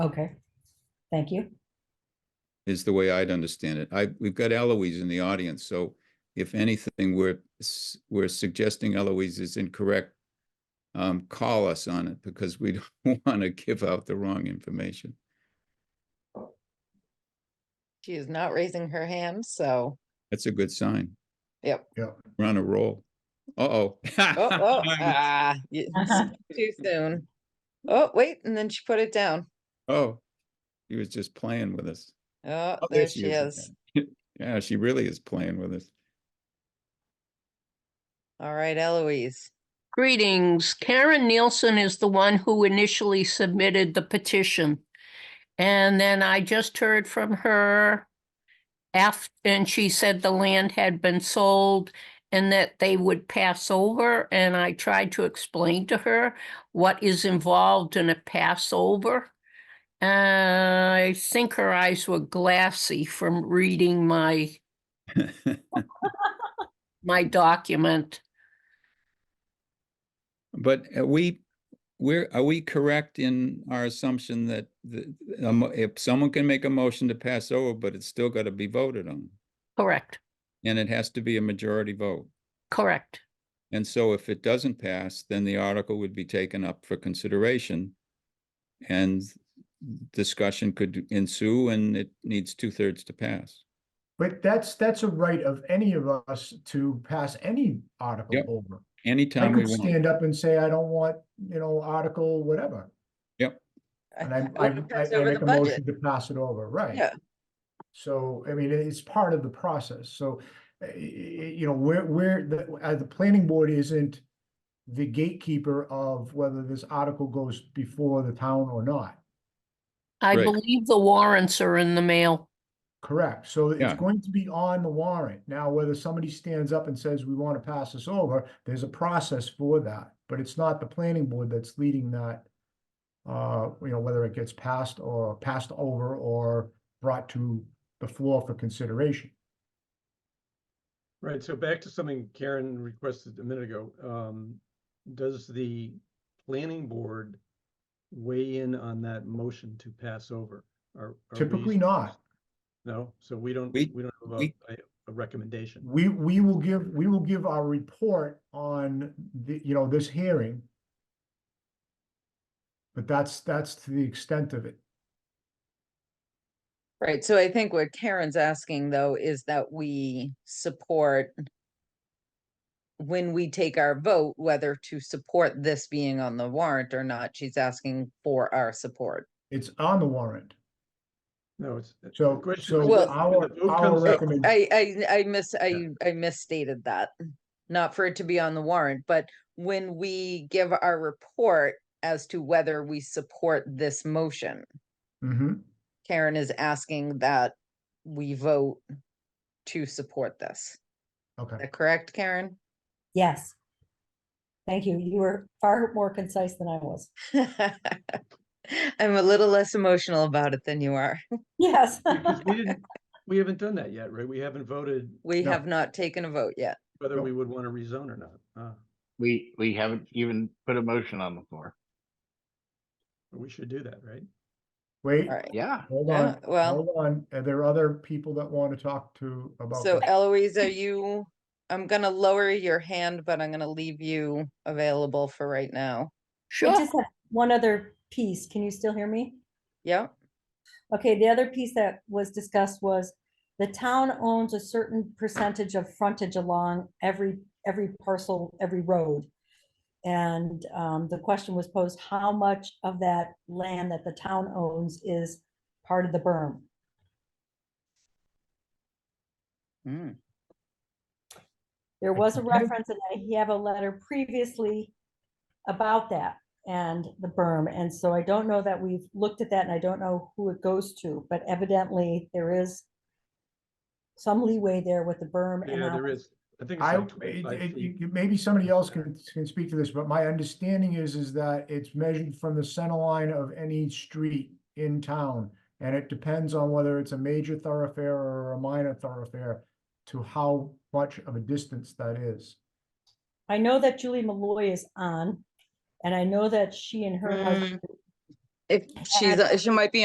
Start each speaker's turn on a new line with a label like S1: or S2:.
S1: Okay, thank you.
S2: is the way I'd understand it. I, we've got Eloise in the audience, so if anything, we're, s- we're suggesting Eloise is incorrect. Um, call us on it because we don't want to give out the wrong information.
S3: She is not raising her hand, so,
S2: That's a good sign.
S3: Yep.
S4: Yep.
S2: We're on a roll. Uh-oh.
S3: oh, oh, ah, you- too soon. Oh, wait, and then she put it down.
S2: Oh, he was just playing with us.
S3: Oh,
S2: Oh,
S3: there she
S2: again.
S3: is.
S2: Yeah, she really is playing with us.
S3: All right, Eloise.
S5: Greetings. Karen Nielsen is the one who initially submitted the petition. And then I just heard from her after, and she said the land had been sold and that they would pass over. And I tried to explain to her what is involved in a passover. Uh, I think her eyes were glassy from reading my, my document.
S2: But are we, we're, are we correct in our assumption that the, a mo- if someone can make a motion to pass over, but it's still got to be voted on?
S5: Correct,
S2: And it has to be a majority vote.
S5: correct.
S2: And so if it doesn't pass, then the article would be taken up for consideration. And discussion could ensue and it needs two thirds to pass.
S4: But that's, that's a right of any of us to pass any article
S2: Yep.
S4: over. I
S2: Anytime we
S4: could
S2: want.
S4: stand up and say, I don't want, you know, article, whatever. And I, I,
S3: Whoever
S4: I
S3: passed
S4: I
S3: over
S4: make
S3: the
S4: a
S3: budget.
S4: motion to pass it over, right?
S3: Yeah.
S4: So, I mean, it's part of the process, so, uh, y- y- you know, we're, we're, the, uh, the planning board isn't the gatekeeper of whether this article goes before the town or not,
S5: I
S2: Right.
S5: believe the warrants are in the mail.
S4: correct? So it's
S2: Yeah.
S4: going to be on the warrant. Now, whether somebody stands up and says, we want to pass this over, there's a process for that, but it's not the planning board that's leading that, uh, you know, whether it gets passed or passed over or brought to the floor for consideration.
S6: Right, so back to something Karen requested a minute ago, um, does the planning board weigh in on that motion to pass over? Are- are we-
S4: Typically not.
S6: No, so we don't,
S2: We-
S6: we don't have
S2: we-
S6: a, a- a recommendation.
S4: We, we will give, we will give our report on the, you know, this hearing. But that's, that's to the extent of it.
S3: Right, so I think what Karen's asking though is that we support when we take our vote, whether to support this being on the warrant or not, she's asking for our support.
S4: It's on the warrant.
S6: No, it's. the
S4: So-
S6: question
S4: so
S6: is
S3: Well-
S6: when the
S4: our-
S6: vote
S4: our
S6: comes up,
S4: recommend-
S3: Oh, I, I, I miss, I, I misstated that. Not for it to be on the warrant, but when we give our report as to whether we support this motion,
S4: Mm-hmm.
S3: Karen is asking that we vote to support this.
S4: Okay.
S3: Is that correct, Karen?
S1: Yes. Thank you. You were far more concise than I was.
S3: I'm a little less emotional about it than you are.
S1: Yes.
S6: because We didn't, we haven't done that yet, right? We haven't voted
S3: We
S4: No.
S3: have not taken a vote yet.
S6: whether
S4: No.
S6: we would want to rezone or not. Uh,
S7: We, we haven't even put a motion on the floor.
S6: we should do that, right?
S4: Wait,
S3: All right.
S7: Yeah,
S4: hold
S3: Yeah,
S4: on,
S3: Uh, well,
S4: hold on. Are there other people that want to talk to about?
S3: so
S4: this?
S3: Eloise, are you, I'm gonna lower your hand, but I'm gonna leave you available for right now.
S1: I
S5: Sure.
S1: just have one other piece. Can you still hear me?
S3: Yeah,
S1: Okay, the other piece that was discussed was the town owns a certain percentage of frontage along every, every parcel, every road. And um, the question was posed, how much of that land that the town owns is part of the berm?
S3: Mm.
S1: There was a
S4: Okay.
S1: reference, and I have a letter previously about that and the berm, and so I don't know that we've looked at that, and I don't know who it goes to, but evidently there is some leeway there with the berm. and
S6: Yeah,
S1: how-
S6: there is. I think
S4: I,
S6: it's like
S4: it-
S6: 25
S4: it-
S6: feet.
S4: you- maybe somebody else can, can speak to this, but my understanding is, is that it's measured from the center line of any street in town. And it depends on whether it's a major thoroughfare or a minor thoroughfare to how much of a distance that is.
S1: I know that Julie Malloy is on, and I know that she and her husband
S3: If she's, she might be